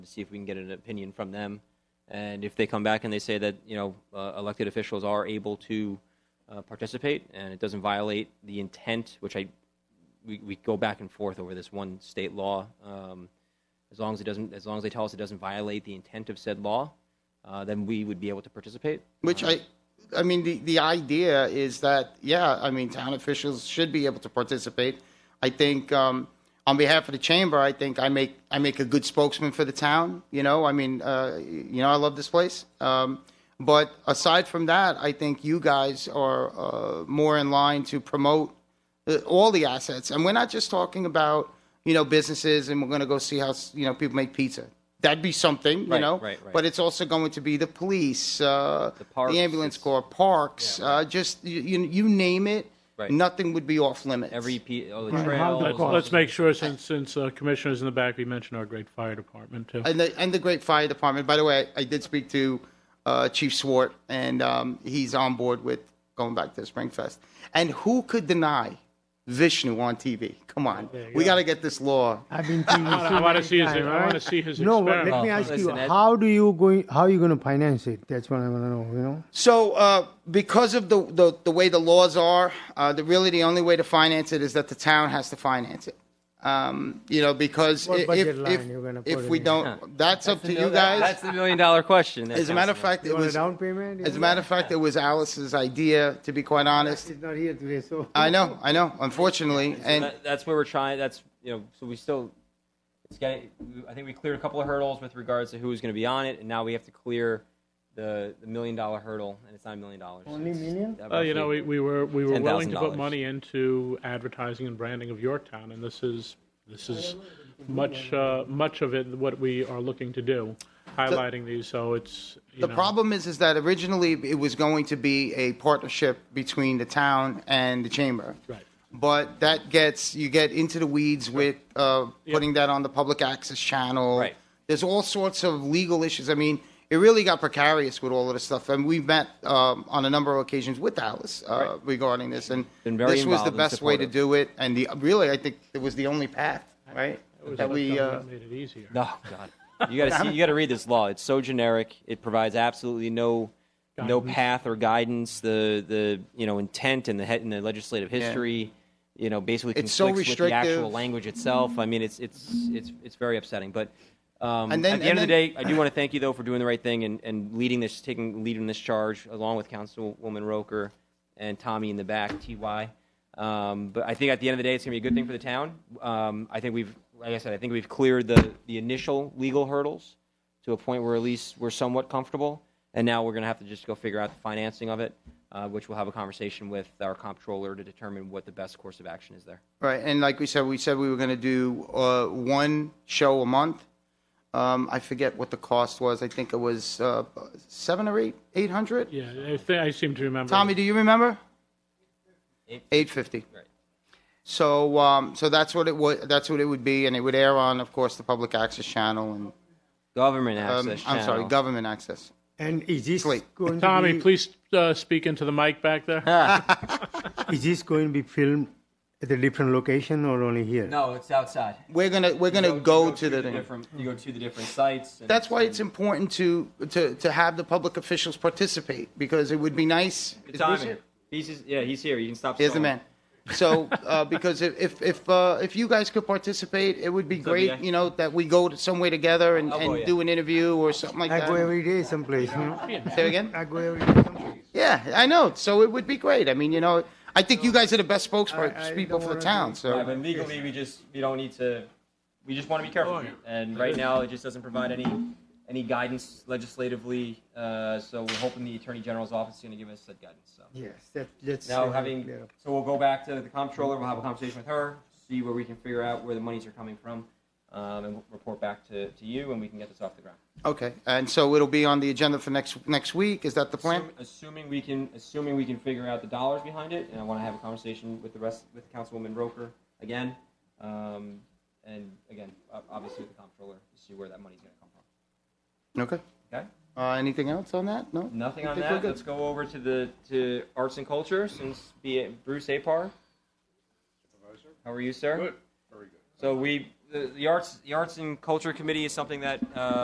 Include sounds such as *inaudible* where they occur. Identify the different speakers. Speaker 1: to see if we can get an opinion from them. And if they come back and they say that, you know, uh, elected officials are able to uh, participate and it doesn't violate the intent, which I, we, we go back and forth over this one state law. Um, as long as it doesn't, as long as they tell us it doesn't violate the intent of said law, uh, then we would be able to participate.
Speaker 2: Which I, I mean, the, the idea is that, yeah, I mean, town officials should be able to participate. I think, um, on behalf of the chamber, I think I make, I make a good spokesman for the town, you know, I mean, uh, you know, I love this place. Um, but aside from that, I think you guys are, uh, more in line to promote uh, all the assets. And we're not just talking about, you know, businesses and we're going to go see how, you know, people make pizza. That'd be something, you
Speaker 1: Right,
Speaker 2: know?
Speaker 1: right, right.
Speaker 2: But it's also going to be the police, uh,
Speaker 1: The parks,
Speaker 2: the ambulance
Speaker 1: it's-
Speaker 2: corps, parks, uh, just you, you, you name it.
Speaker 1: Right.
Speaker 2: Nothing would be off limits.
Speaker 1: Every piece, all the
Speaker 3: Right.
Speaker 1: trails.
Speaker 3: Let's-
Speaker 1: all
Speaker 3: Let's
Speaker 1: the-
Speaker 3: make sure, since, since uh, Commissioner's in the back, we mentioned our great fire department, too.
Speaker 2: and the, and the great fire department. By the way, I, I did speak to uh, Chief Swart, and um, he's on board with going back to Springfest. And who could deny Vishnu on TV? Come on, we got to get this law.
Speaker 4: I've been
Speaker 3: *laughs*
Speaker 4: to
Speaker 3: wanna- I wanna see his- I wanna see his
Speaker 4: No, but let
Speaker 3: experiment.
Speaker 4: me ask you,
Speaker 1: Listen, Ed-
Speaker 4: how do you going? How you going to finance it? That's what I want to know. You know,
Speaker 2: So, uh, because of the, the, the way the laws are, uh, the, really the only way to finance it is that the town has to finance it. Um, you know, because
Speaker 4: What
Speaker 2: if,
Speaker 4: budget
Speaker 2: if,
Speaker 4: line you're gonna
Speaker 2: if,
Speaker 4: put
Speaker 2: if
Speaker 4: it
Speaker 2: we
Speaker 4: in?
Speaker 2: don't, that's up to you
Speaker 1: That's
Speaker 2: guys.
Speaker 1: the million dollar question. there,
Speaker 2: As a matter of
Speaker 1: Councilman.
Speaker 2: fact,
Speaker 4: you
Speaker 2: it
Speaker 4: want a
Speaker 2: was,
Speaker 4: down payment.
Speaker 2: as a matter of fact, it was Alice's idea, to be quite honest.
Speaker 4: he's not here today, so
Speaker 2: I know, I know, unfortunately. And
Speaker 1: that, that's where we're trying. That's you know, so we still. It's getting. I think we cleared a couple of hurdles with regards to who was going to be on it, and now we have to clear the, the million dollar hurdle, and it's not a million dollars.
Speaker 4: Only
Speaker 1: It's-
Speaker 4: million?
Speaker 1: uh,
Speaker 3: Well, Oh, you know,
Speaker 1: *laughs*
Speaker 3: we,
Speaker 1: roughly-
Speaker 3: we were, we were willing to
Speaker 1: $10,000.
Speaker 3: put money into advertising and branding of Yorktown, and this is, this is much, uh, much of it, what we are looking to do, highlighting these, so it's, you
Speaker 2: the
Speaker 3: know,
Speaker 2: problem is, is that originally it was going to be a partnership between the town and the chamber.
Speaker 3: Right.
Speaker 2: But that gets, you get into the weeds with uh, putting that on the public access channel.
Speaker 1: Right.
Speaker 2: There's all sorts of legal issues. I mean, it really got precarious with all of this stuff. And we've met um, on a number of occasions with Alice uh,
Speaker 1: Right.
Speaker 2: regarding this. And
Speaker 1: Been very
Speaker 2: this was
Speaker 1: involved
Speaker 2: the
Speaker 1: and
Speaker 2: best way to
Speaker 1: supportive.
Speaker 2: do it. And the, really, I think it was the only path, right?
Speaker 3: it was
Speaker 2: That we,
Speaker 3: Yorktown
Speaker 2: uh,
Speaker 3: that made it easier.
Speaker 1: No, Oh, God, you got to see. You got to read this law. It's so generic. It provides absolutely no. No
Speaker 3: Guidance.
Speaker 1: path or guidance. The the you know intent and the head and the legislative history, you know, basically
Speaker 2: It's
Speaker 1: conflicts
Speaker 2: so
Speaker 1: with the actual
Speaker 2: restrictive.
Speaker 1: language itself. I mean, it's it's it's it's very upsetting. But um,
Speaker 2: And then-
Speaker 1: at the end
Speaker 2: and
Speaker 1: of the
Speaker 2: then-
Speaker 1: day, I do want to thank you though for doing the right thing and, and leading this, taking leading this charge along with Councilwoman Roker and Tommy in the back, Ty. Um, but I think at the end of the day, it's going to be a good thing for the town. Um, I think we've, like I said, I think we've cleared the the initial legal hurdles to a point where at least we're somewhat comfortable. And now we're going to have to just go figure out the financing of it, uh, which we'll have a conversation with our comptroller to determine what the best course of action is there.
Speaker 2: uh, Right, and like we said, we said we were going to do uh, one show a month. Um, I forget what the cost was. I think it was uh, seven or eight, eight hundred.
Speaker 3: Yeah, I thi- I seem to remember.
Speaker 2: Tommy, do you remember?
Speaker 1: Eight.
Speaker 2: Eight fifty.
Speaker 1: Right.
Speaker 2: So, um, so that's what it would. That's what it would be, and it would air on, of course, the public access channel and
Speaker 1: Government access.
Speaker 2: um, I'm sorry,
Speaker 1: channel.
Speaker 2: government access.
Speaker 4: and is this
Speaker 2: Sleep.
Speaker 4: going
Speaker 3: Tommy,
Speaker 4: to be,
Speaker 3: please uh, speak into the mic back there.
Speaker 4: Is this going to be filmed at a different location or only here?
Speaker 1: No, it's outside.
Speaker 2: We're gonna we're gonna go, to the. thing.
Speaker 1: different. You go to the different sites. and-
Speaker 2: That's why it's important to, to to have the public officials participate because it would be nice.
Speaker 1: Good timing. He's just, yeah, he's here. You can stop.
Speaker 2: Here's the
Speaker 1: stalling.
Speaker 2: man. So,
Speaker 1: *laughs*
Speaker 2: uh, because if if if, uh, if you guys could participate, it would be great.
Speaker 1: yeah.
Speaker 2: You know that we go to somewhere together and,
Speaker 1: I'll go,
Speaker 2: and
Speaker 1: yeah.
Speaker 2: do an interview or something like
Speaker 4: I
Speaker 2: that.
Speaker 4: go every day someplace. You know?
Speaker 2: Say it again.
Speaker 4: I go every day someplace.
Speaker 2: Yeah, I know. So it would be great. I mean, you know, I think you guys are the best
Speaker 4: I- I
Speaker 2: spokespeople
Speaker 4: don't
Speaker 2: for the
Speaker 4: wanna
Speaker 2: town.
Speaker 4: do-
Speaker 1: Yeah,
Speaker 2: So
Speaker 1: but legally, we just we don't need to. We just want to be careful. And right now, it just doesn't provide any any guidance legislatively. Uh, so we're hoping the attorney general's office is going to give us that guidance. So
Speaker 4: Yes, that, that's
Speaker 1: now
Speaker 4: uh,
Speaker 1: having
Speaker 4: clear.
Speaker 1: so we'll go back to the comptroller. We'll have a conversation with her, see where we can figure out where the monies are coming from, um, and we'll report back to, to you, and we can get this off the ground.
Speaker 2: okay, and so it'll be on the agenda for next next week. Is that the plan?
Speaker 1: Assuming, assuming we can, assuming we can figure out the dollars behind it, and I want to have a conversation with the rest, with Councilwoman Roker again, um, and again, o- obviously with the comptroller to see where that money's going to come from.
Speaker 2: Okay.
Speaker 1: Okay,
Speaker 2: Uh, anything else on that? No.
Speaker 1: nothing
Speaker 2: I
Speaker 1: on
Speaker 2: think we're
Speaker 1: that.
Speaker 2: good.
Speaker 1: Let's go over to the to arts and culture since be it Bruce Apar. How are you, sir? Good. Very good. So we the, the arts the arts and culture committee is something that uh,